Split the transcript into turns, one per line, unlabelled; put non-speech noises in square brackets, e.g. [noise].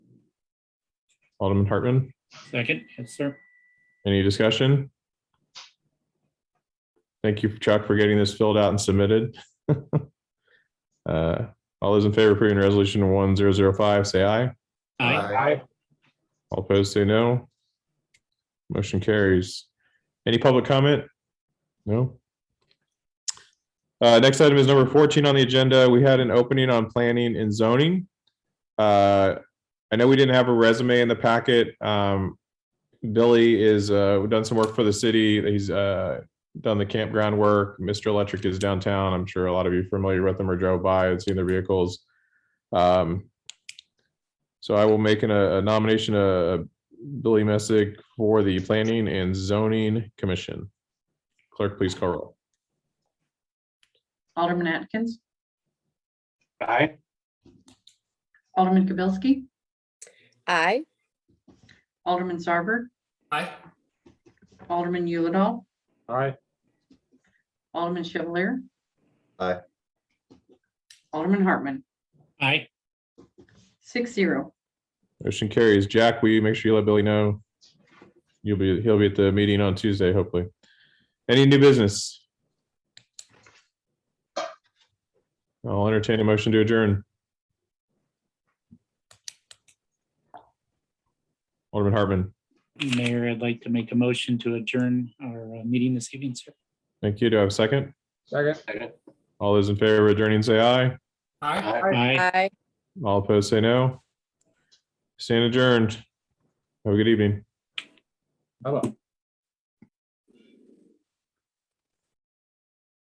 Alderman Hartman,
Second, yes, sir.
any discussion? Thank you, Chuck, for getting this filled out and submitted. [laughs] Uh, All those in favor of approving resolution one zero zero five, say aye.
Aye.
All opposed, say no. Motion carries. Any public comment? No? Uh, next item is number fourteen on the agenda. We had an opening on planning and zoning. Uh, I know we didn't have a resume in the packet. Um, Billy is, uh, we've done some work for the city. He's, uh, done the campground work. Mr. Electric is downtown. I'm sure a lot of you are familiar with them or drove by and seen their vehicles. Um, so I will make an, a nomination, uh, Billy Messick for the Planning and Zoning Commission. Clerk, please call roll.
Alderman Atkins,
Aye.
Alderman Kibelski,
Aye.
Alderman Sarber,
Aye.
Alderman Yulidol,
Aye.
Alderman Chevalier.
Aye.
Alderman Hartman,
Aye.
six zero.
Motion carries. Jack, will you make sure you let Billy know? You'll be, he'll be at the meeting on Tuesday, hopefully. Any new business? I'll entertain a motion to adjourn. Alderman Hartman,
Mayor, I'd like to make a motion to adjourn our uh, meeting this evening, sir.
thank you. Do I have a second?
Second.
All those in favor of adjourning, say aye.
Aye.
Aye.
Aye.
All opposed, say no. Stand adjourned. Have a good evening.
Hello.